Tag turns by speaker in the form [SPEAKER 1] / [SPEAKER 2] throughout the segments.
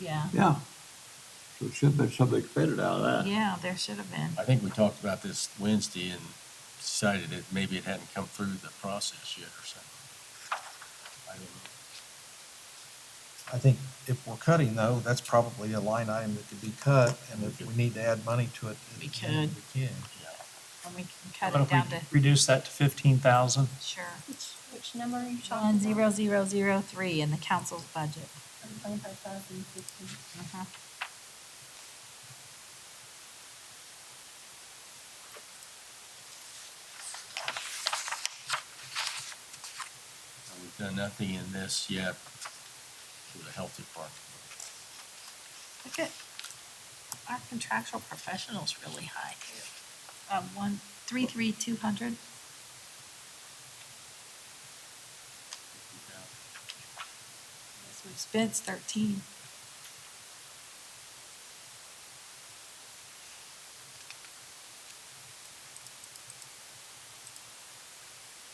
[SPEAKER 1] Yeah,
[SPEAKER 2] Yeah. So it should have been something expanded out of that.
[SPEAKER 1] yeah, there should have been.
[SPEAKER 3] I think we talked about this Wednesday and decided that maybe it hadn't come through the process yet or something. I don't know.
[SPEAKER 4] I think if we're cutting though, that's probably a line item that could be cut, and if we need to add money to it.
[SPEAKER 1] We could.
[SPEAKER 4] We can.
[SPEAKER 1] And we can
[SPEAKER 5] What
[SPEAKER 1] cut it
[SPEAKER 5] if
[SPEAKER 1] down to,
[SPEAKER 5] we Reduce that to fifteen thousand.
[SPEAKER 1] sure.
[SPEAKER 6] Which, which number are
[SPEAKER 1] One
[SPEAKER 6] you talking
[SPEAKER 1] zero
[SPEAKER 6] about?
[SPEAKER 1] zero zero three in the council's budget.
[SPEAKER 6] Twenty-five thousand fifteen.
[SPEAKER 1] Mhm.
[SPEAKER 3] We've done nothing in this yet for the health department.
[SPEAKER 1] Look at, our contractual professionals really high too. Uh, one, three, three, two hundred. Yes, we've spent thirteen.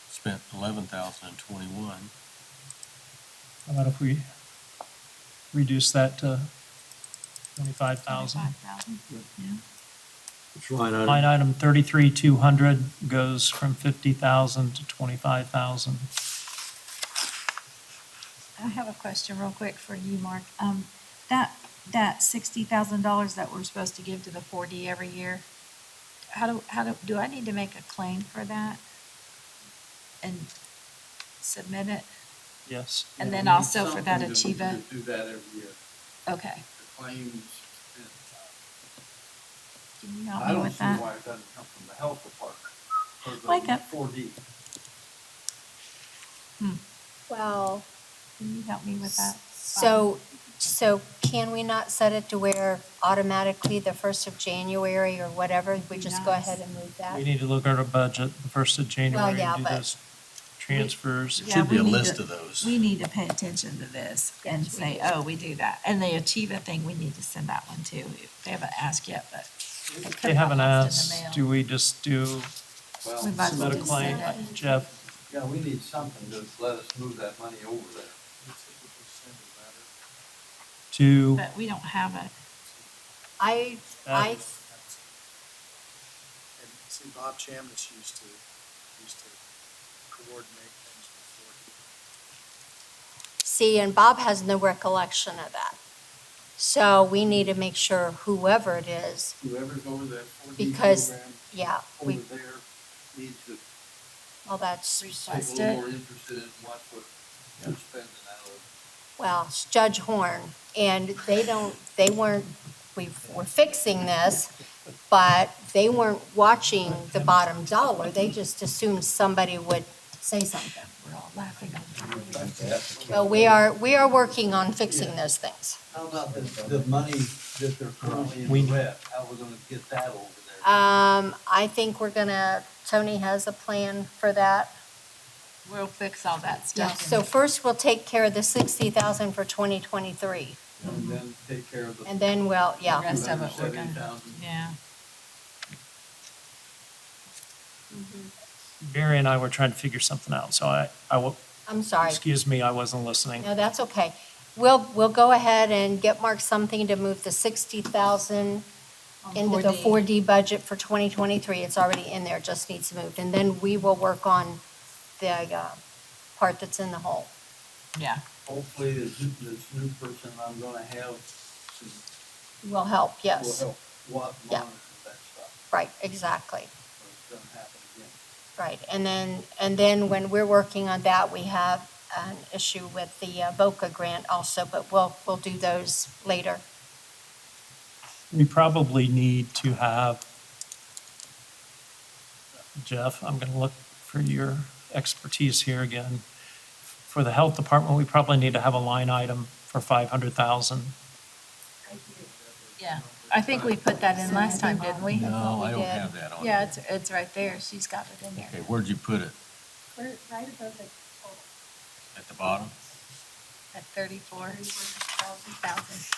[SPEAKER 3] Spent eleven thousand and twenty-one.
[SPEAKER 5] How about if we reduce that to twenty-five thousand?
[SPEAKER 1] 25,000.
[SPEAKER 2] It's line item.
[SPEAKER 5] Line item thirty-three, two hundred goes from fifty thousand to twenty-five thousand.
[SPEAKER 1] I have a question real quick for you, Mark. Um, that, that sixty thousand dollars that we're supposed to give to the four D every year, how do, how do, do I need to make a claim for that? And submit it?
[SPEAKER 5] Yes.
[SPEAKER 1] And then also for that Achieva?
[SPEAKER 7] Do that every year.
[SPEAKER 1] Okay,
[SPEAKER 7] The claims, and,
[SPEAKER 1] can you
[SPEAKER 7] uh,
[SPEAKER 1] help
[SPEAKER 7] I
[SPEAKER 1] me
[SPEAKER 7] don't
[SPEAKER 1] with
[SPEAKER 7] see
[SPEAKER 1] that?
[SPEAKER 7] why it doesn't come from the health department.
[SPEAKER 1] Wake up.
[SPEAKER 7] Four D.
[SPEAKER 6] Well,
[SPEAKER 1] Can you help me with that?
[SPEAKER 6] so, so can we not set it to where automatically the first of January or whatever, we just go
[SPEAKER 1] Nice.
[SPEAKER 6] ahead and move that?
[SPEAKER 5] We need to look at our budget the first of January
[SPEAKER 6] yeah,
[SPEAKER 5] and do
[SPEAKER 6] but-
[SPEAKER 5] those transfers.
[SPEAKER 3] It
[SPEAKER 1] Yeah,
[SPEAKER 3] should be
[SPEAKER 1] we
[SPEAKER 3] a
[SPEAKER 1] need
[SPEAKER 3] list
[SPEAKER 1] to-
[SPEAKER 3] of those.
[SPEAKER 1] We need to pay attention to this and
[SPEAKER 6] Yes, we
[SPEAKER 1] say,
[SPEAKER 6] do.
[SPEAKER 1] oh, we do that. And the Achieva thing, we need to send that one too. They haven't asked yet, but. it could
[SPEAKER 5] They haven't
[SPEAKER 1] have lost in the
[SPEAKER 5] asked,
[SPEAKER 1] mail.
[SPEAKER 5] do we just do
[SPEAKER 1] We
[SPEAKER 7] Well,
[SPEAKER 1] might as well
[SPEAKER 5] submit a
[SPEAKER 1] just
[SPEAKER 5] claim?
[SPEAKER 1] send it.
[SPEAKER 5] Jeff,
[SPEAKER 7] yeah, we need something to let us move that money over there.
[SPEAKER 5] to,
[SPEAKER 1] But we don't have it.
[SPEAKER 6] I, I,
[SPEAKER 5] uh,
[SPEAKER 8] And see, Bob Chambliss used to, used to coordinate things before he
[SPEAKER 6] see, and Bob has no recollection of that. So we need to make sure whoever it is,
[SPEAKER 7] Whoever's over that four D
[SPEAKER 6] Because
[SPEAKER 7] program
[SPEAKER 6] yeah,
[SPEAKER 7] over
[SPEAKER 6] we,
[SPEAKER 7] there needs to
[SPEAKER 6] well, that's,
[SPEAKER 7] be a
[SPEAKER 1] Request
[SPEAKER 7] little more
[SPEAKER 1] it.
[SPEAKER 7] interested in what we're we're spending out of.
[SPEAKER 6] well, it's Judge Horn. And they don't, they weren't, we were fixing this, but they weren't watching the bottom dollar. They just assumed somebody would say something.
[SPEAKER 1] We're all laughing.
[SPEAKER 6] Well, we are, we are working on fixing those things.
[SPEAKER 7] How about the, the money that they're currently
[SPEAKER 5] We-
[SPEAKER 7] in the red, how we are gonna get that over there?
[SPEAKER 1] Uh,
[SPEAKER 6] Um, I think we're gonna, Tony has a plan for that.
[SPEAKER 1] We'll fix all that
[SPEAKER 6] Yeah,
[SPEAKER 1] stuff.
[SPEAKER 6] so first we'll take care of the sixty thousand for twenty twenty-three,
[SPEAKER 7] And then take care of the.
[SPEAKER 6] and then we'll,
[SPEAKER 1] The
[SPEAKER 6] yeah,
[SPEAKER 1] rest of it we're gonna-
[SPEAKER 7] 270,000.
[SPEAKER 1] Yeah.
[SPEAKER 5] Barry and I were trying to figure something out, so I, I will,
[SPEAKER 6] I'm sorry.
[SPEAKER 5] excuse me, I wasn't listening.
[SPEAKER 6] No, that's okay. We'll, we'll go ahead and get Mark something to move the sixty thousand
[SPEAKER 1] on
[SPEAKER 6] into the
[SPEAKER 1] 4D.
[SPEAKER 6] four D budget for twenty twenty-three. It's already in there, just needs moved, and then we will work on the, uh, part that's in the hole.
[SPEAKER 1] Yeah,
[SPEAKER 7] Hopefully, this, this new person I'm gonna have
[SPEAKER 6] Will help,
[SPEAKER 7] will
[SPEAKER 6] yes.
[SPEAKER 7] help what
[SPEAKER 6] Yeah.
[SPEAKER 7] monitor that stuff,
[SPEAKER 6] Right, exactly.
[SPEAKER 7] so it doesn't happen again.
[SPEAKER 6] Right, and then, and then when we're working on that, we have an issue with the uh, VOCA grant also, but we'll, we'll do those later.
[SPEAKER 5] We probably need to have, Jeff, I'm gonna look for your expertise here again. For the health department, we probably need to have a line item for five hundred thousand.
[SPEAKER 1] yeah. I think we put that in last time, didn't we?
[SPEAKER 3] No, I don't
[SPEAKER 6] did.
[SPEAKER 3] have that on.
[SPEAKER 1] Yeah,
[SPEAKER 3] here.
[SPEAKER 1] it's, it's right there. She's got it in there.
[SPEAKER 3] Okay, where'd you put it?
[SPEAKER 6] We're right above the total.
[SPEAKER 3] At the bottom?
[SPEAKER 1] At thirty-four thousand.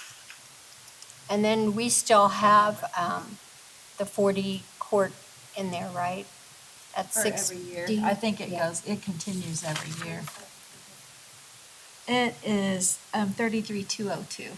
[SPEAKER 6] And then we still have, um, the forty court in there, right? At
[SPEAKER 1] For
[SPEAKER 6] six.
[SPEAKER 1] every year. I think it goes, it continues every year. It is, um, thirty-three, two oh two.